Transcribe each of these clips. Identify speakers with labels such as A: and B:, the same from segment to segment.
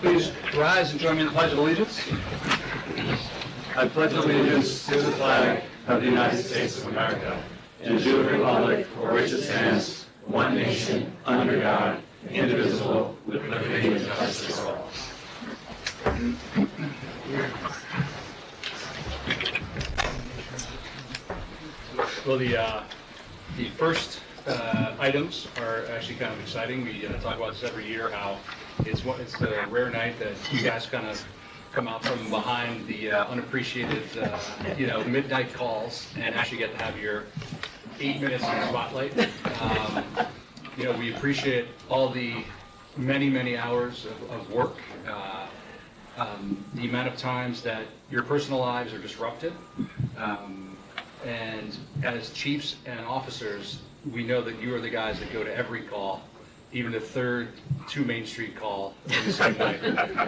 A: Please rise and join me in the pledge of allegiance.
B: I pledge allegiance to the flag of the United States of America and to the republic for which it stands, one nation, under God, indivisible, with liberty and justice for all.
A: Well, the, uh, the first uh, items are actually kind of exciting. We uh, talk about this every year, how it's one, it's a rare night that you guys kind of come out from behind the uh, unappreciated, uh, you know, midnight calls and actually get to have your eight minutes in the spotlight. Um, You know, we appreciate all the many, many hours of, of work, uh, um, the amount of times that your personal lives are disrupted. Um, and as chiefs and officers, we know that you are the guys that go to every call, even the third two Main Street call in the same night.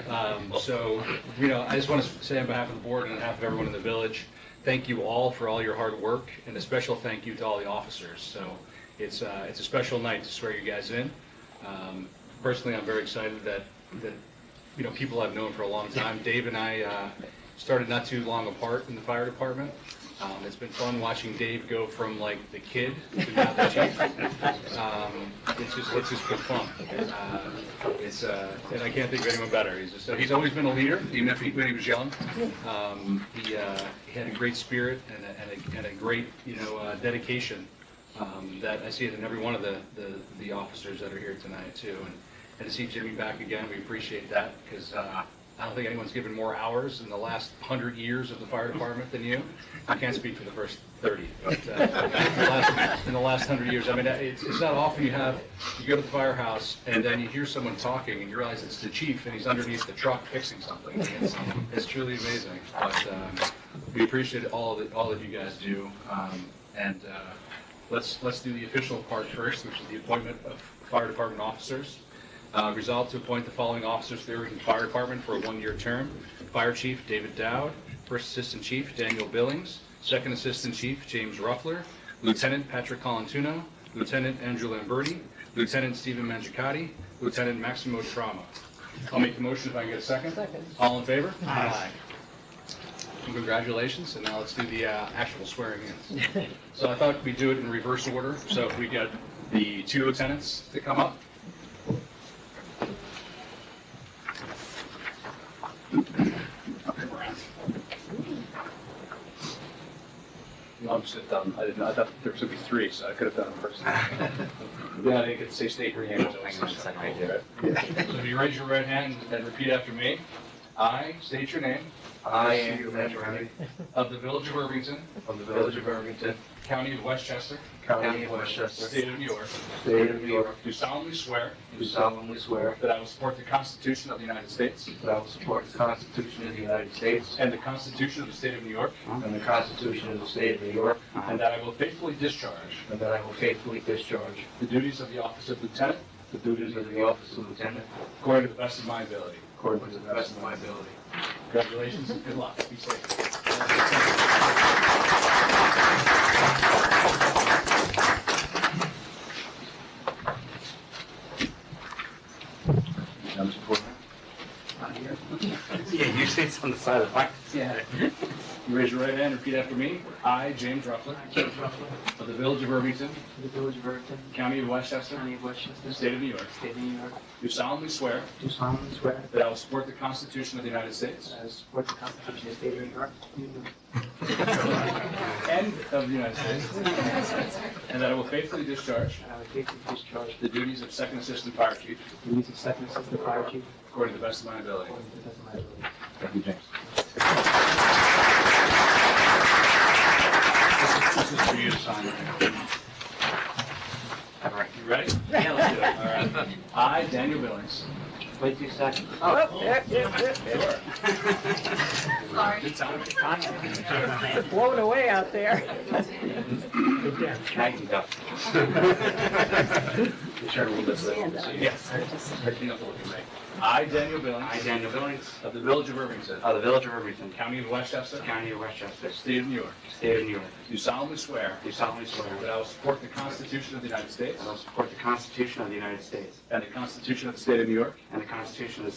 A: Um, so, you know, I just want to say on behalf of the board and on behalf of everyone in the village, thank you all for all your hard work and a special thank you to all the officers. So it's, uh, it's a special night to swear you guys in. Um, personally, I'm very excited that, that you know, people I've known for a long time. Dave and I uh, started not too long apart in the fire department. Um, It's been fun watching Dave go from like the kid to now the chief. Um, It's just, it's just been fun. Uh, It's, uh, and I can't think of anyone better. He's just, he's always been a leader, even if he, when he was young. Um, He, uh, he had a great spirit and a, and a, and a great, you know, uh, dedication um, that I see it in every one of the, the- the officers that are here tonight too. And and to see Jimmy back again, we appreciate that, because I don't think anyone's given more hours in the last 100 years of the fire department than you. I can't speak for the first 30, but uh, in the last- in the last 100 years, I mean, it's it's not often you have, you go to the firehouse, and then you hear someone talking, and you realize it's the chief, and he's underneath the truck fixing something. It's- It's truly amazing, but um, we appreciate all that, all that you guys do, Um, and uh, let's, let's do the official part first, which is the appointment of fire department officers. Uh, Resolved to appoint the following officers to the Irvington Fire Department for a one-year term. Fire Chief David Dowd, First Assistant Chief Daniel Billings, Second Assistant Chief James Ruffler, Lieutenant Patrick Colantuno, Lieutenant Andrew Lamberti, Lieutenant Stephen Mangicati, Lieutenant Maximo Trauma. I'll make the motion if I can get a second.
C: Second.
A: All in favor? Aye. Congratulations, and now let's do the uh, actual swearing in. So I thought we'd do it in reverse order, so if we get the two lieutenants to come up. No, I'm just done. I didn't, I thought there was gonna be three, so I could have done it first. Yeah, they could say state your name.
D: Hang on a second, I do.
A: So if you raise your right hand and repeat after me, I state your name,
D: I, Andrew Mangiarati,
A: of the Village of Irvington,
D: from the village of Irvington,
A: County of Westchester,
D: county of Westchester,
A: State of New York,
D: state of New York,
A: do solemnly swear
D: do solemnly swear
A: that I will support the Constitution of the United States
D: that I will support the Constitution of the United States
A: and the Constitution of the State of New York,
D: and the Constitution of the state of New York,
A: and that I will faithfully discharge
D: and that I will faithfully discharge
A: the duties of the office of lieutenant
D: the duties of the office of lieutenant
A: according to the best of my ability.
D: according to the best of my ability.
A: Congratulations, and good luck. Be safe.
E: Yeah, you say it's on the side of the mic.
A: Yeah. You raise your right hand, repeat after me. I, James Ruffler,
F: James Ruffalo,
A: of the Village of Irvington,
F: to the Village of Irvington,
A: County of Westchester,
F: County of Westchester, State
A: State of New York,
F: of New York,
A: do solemnly swear
F: do solemnly swear
A: that I will support the Constitution of the United States
F: that I will support the Constitution of the State of New York,
A: and of the United States, and that I will faithfully discharge
F: and I will faithfully discharge
A: the duties of Second Assistant Fire Chief
F: the duties of Second Assistant Fire Chief
A: according to the best of my ability.
F: according to the best of my ability.
A: This is for you to sign. All right, you ready? Yeah, let's do it. All right. I, Daniel Billings.
F: Wait two seconds.
C: Oh,
A: Good time.
C: Blown away out there.
E: I can go.
A: Yes.
C: Stand up.
A: Yes. Right, you don't have to look at me. I, Daniel Billings.
E: I, Daniel Billings,
A: Of the Village of Irvington.
E: of the Village of Irvington,
A: County of Westchester.
E: County of Westchester,
A: State of New York.
E: State of New York,
A: Do solemnly swear.
E: do solemnly swear
A: That
E: that
A: I will support the Constitution of the United States.
E: I will support the Constitution of the United States
A: And the Constitution of the State of New York.
E: and the Constitution of the